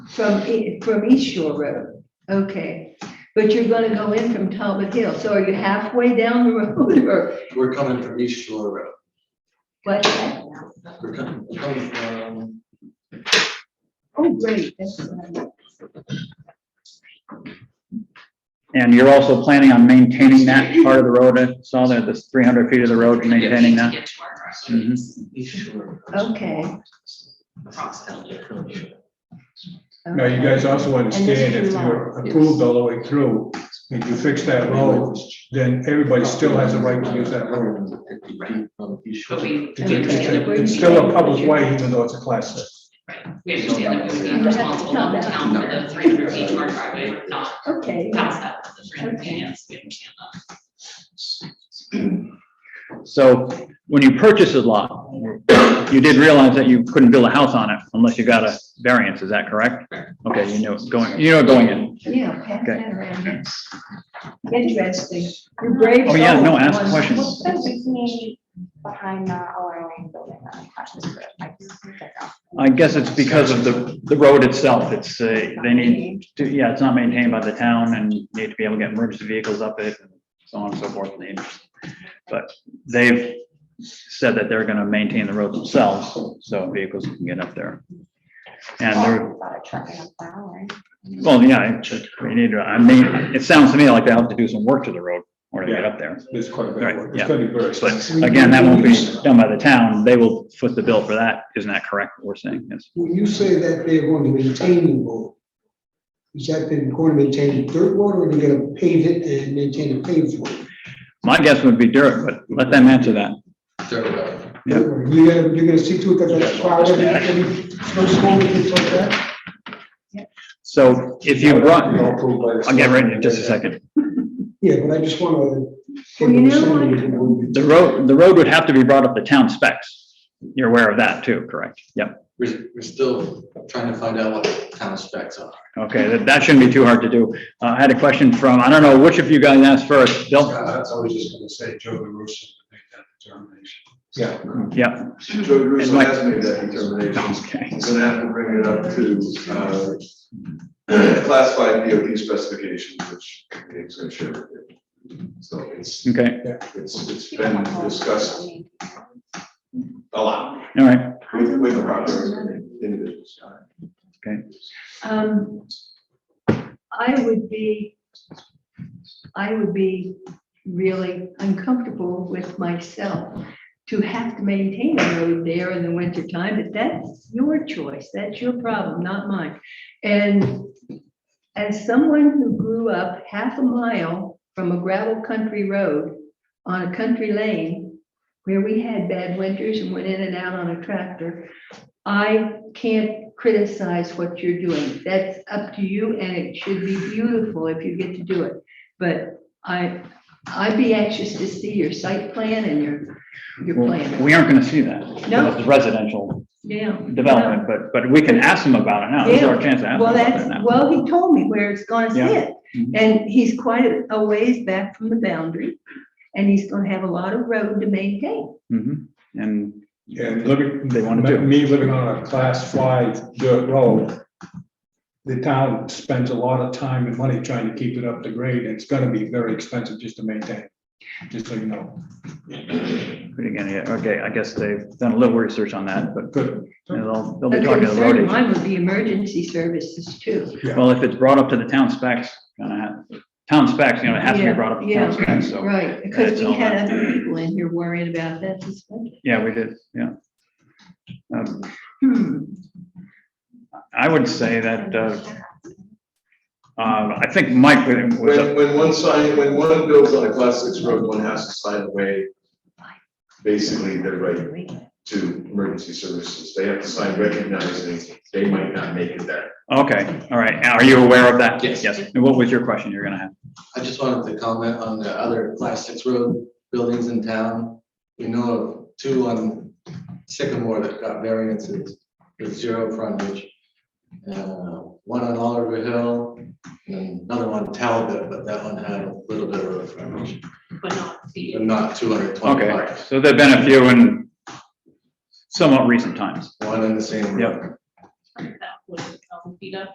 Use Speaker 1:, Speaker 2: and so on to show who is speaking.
Speaker 1: From, E- from East Shore Road, okay. But you're gonna go in from Talbot Hill, so are you halfway down the road or
Speaker 2: We're coming from East Shore Road.
Speaker 1: what?
Speaker 2: We're coming, we're coming from,
Speaker 1: Oh, great, that's, uh,
Speaker 3: And you're also planning on maintaining that part of the road, I saw that this three hundred feet of the road, maintaining that.
Speaker 4: Get to our
Speaker 3: Mhm.
Speaker 4: crossroads
Speaker 2: East Shore.
Speaker 1: okay.
Speaker 4: across the hill.
Speaker 5: Now, you guys also understand if you're approved all the way through, if you fix that
Speaker 3: Oh.
Speaker 5: road, then everybody still has a right to use that road.
Speaker 2: From East Shore.
Speaker 4: But we, we
Speaker 5: It's, a- it's
Speaker 4: understand that
Speaker 5: a-
Speaker 4: we would
Speaker 5: it's
Speaker 4: be,
Speaker 5: still a public way, even though it's a class six.
Speaker 4: we understand that we would be responsible on the town for the three hundred feet to our driveway, but not
Speaker 1: Okay,
Speaker 4: past that, the three hundred feet,
Speaker 1: Okay.
Speaker 4: yes, we understand that.
Speaker 3: So when you purchase a lot, you did realize that you couldn't build a house on it unless you got a variance, is that correct? Okay, you knew it going, you know it going in.
Speaker 1: yeah, pass
Speaker 3: Okay.
Speaker 1: that around. here. Interesting, you're brave.
Speaker 3: Oh, yeah, no,
Speaker 1: soul.
Speaker 3: ask questions.
Speaker 6: What's the reasoning behind oh, not allowing building on Clash's Road? I just don't know.
Speaker 3: I guess it's because of the, the road itself, it's, uh, they need, to yeah, it's not maintained by the town and you need to be able to get emergency vehicles up it, and so on and so forth. They- But they've said that they're gonna maintain the road themselves, so vehicles can get up there. And they're,
Speaker 6: About a truck and a plow, right?
Speaker 3: well, yeah, it's- we need to, I mean, it sounds to me like they have to do some work to the road or to get up there.
Speaker 5: There's quite a bit of work. It's
Speaker 3: Right, yeah.
Speaker 5: gonna be very
Speaker 3: But
Speaker 5: expensive.
Speaker 3: again, that won't be done by the town, they will foot the bill for that, isn't that correct, what we're saying, yes?
Speaker 7: When you say that they're going to maintain the road, is that they're going to maintain dirt road or are they gonna pave it and maintain a paved road?
Speaker 3: My guess would be dirt, but let them answer that.
Speaker 2: Dirt road.
Speaker 3: Yeah.
Speaker 7: You're gonna, you're gonna see to it that that's plowed every, every snow storm and things like that?
Speaker 3: So if you brought,
Speaker 5: All approved by the-
Speaker 3: I'll get ready in just a second.
Speaker 7: Yeah, but I just wanna.
Speaker 1: Well, you know what?
Speaker 3: The road, the road would have to be brought up to town specs. You're aware of that too, correct? Yep.
Speaker 2: We're, we're still trying to find out what the town specs are.
Speaker 3: Okay, that, that shouldn't be too hard to do. Uh, I had a question from, I don't know which of you guys asked first, Bill?
Speaker 8: That's, I was just gonna say, Joe DeRusso would make that determination.
Speaker 5: Yeah.
Speaker 3: Yep.
Speaker 8: Joe
Speaker 3: And
Speaker 8: DeRusso
Speaker 3: Mike-
Speaker 8: has made that determination.
Speaker 3: Okay.
Speaker 8: He's gonna have to bring it up to, uh, classified DOT specifications, which he's gonna share with you. So it's,
Speaker 3: Okay,
Speaker 8: it's, it's been discussed a lot
Speaker 3: all right.
Speaker 8: with, with the project individuals.
Speaker 1: Um, I would be, I would be really uncomfortable with myself to have to maintain a road there in the wintertime, but that's your choice, that's your problem, not mine. And as someone who grew up half a mile from a gravel country road on a country lane where we had bad winters and went in and out on a tractor, I can't criticize what you're doing. That's up to you and it should be beautiful if you get to do it. But I, I'd be anxious to see your site plan and your, your plan.
Speaker 3: We aren't gonna see that.
Speaker 1: No.
Speaker 3: It's residential
Speaker 1: Yeah.
Speaker 3: development, but, but we can ask them about it now. This is our chance to ask them
Speaker 1: Well,
Speaker 3: about
Speaker 1: that's,
Speaker 3: it now.
Speaker 1: well, he told me where it's gonna
Speaker 3: Yeah.
Speaker 1: sit.
Speaker 3: Mhm.
Speaker 1: And he's quite a- a ways back from the boundary and he's gonna have a lot of road to maintain.
Speaker 3: Mhm. And
Speaker 5: And living,
Speaker 3: They wanna do.
Speaker 5: me living on a class five dirt road, the town spends a lot of time and money trying to keep it up to grade, and it's gonna be very expensive just to maintain, just so you know.
Speaker 3: but again, yeah, okay, I guess they've done a little research on that, but
Speaker 5: Good.
Speaker 3: they'll, they'll be
Speaker 1: A
Speaker 3: talking to the
Speaker 1: concern of
Speaker 3: road agent.
Speaker 1: mine would be emergency services too.
Speaker 3: Well, if it's brought up to the town specs, gonna have, town specs, you know, it has to be
Speaker 1: Yeah,
Speaker 3: brought up to
Speaker 1: yeah,
Speaker 3: town specs, so,
Speaker 1: Right, because
Speaker 3: That's
Speaker 1: we
Speaker 3: all
Speaker 1: had
Speaker 3: that.
Speaker 1: other people in here worrying about that this week.
Speaker 3: yeah, we did, yeah. Um,
Speaker 1: Hmm.
Speaker 3: I would say that, uh, um, I think Mike was- was,
Speaker 8: When, when one sign, when one builds on a class six road, one has to sign away basically their right to emergency services. They have to sign recognizing they might not make it there.
Speaker 3: okay, all right, are you aware of that?
Speaker 2: Yes.
Speaker 3: Yes, and what was your question you're gonna have?
Speaker 2: I just wanted to comment on the other class six road buildings in town. We know of two on Sycamore that got variances with zero frontage. Uh, One on Oliver Hill, and another one Talbot, but that one had a little bit of road frontage,
Speaker 4: But not the.
Speaker 2: but not two hundred
Speaker 3: Okay,
Speaker 2: twenty-five.
Speaker 3: so there've been a few in somewhat recent times.
Speaker 2: One in the same road.
Speaker 3: Yep.
Speaker 4: that would, um, beat up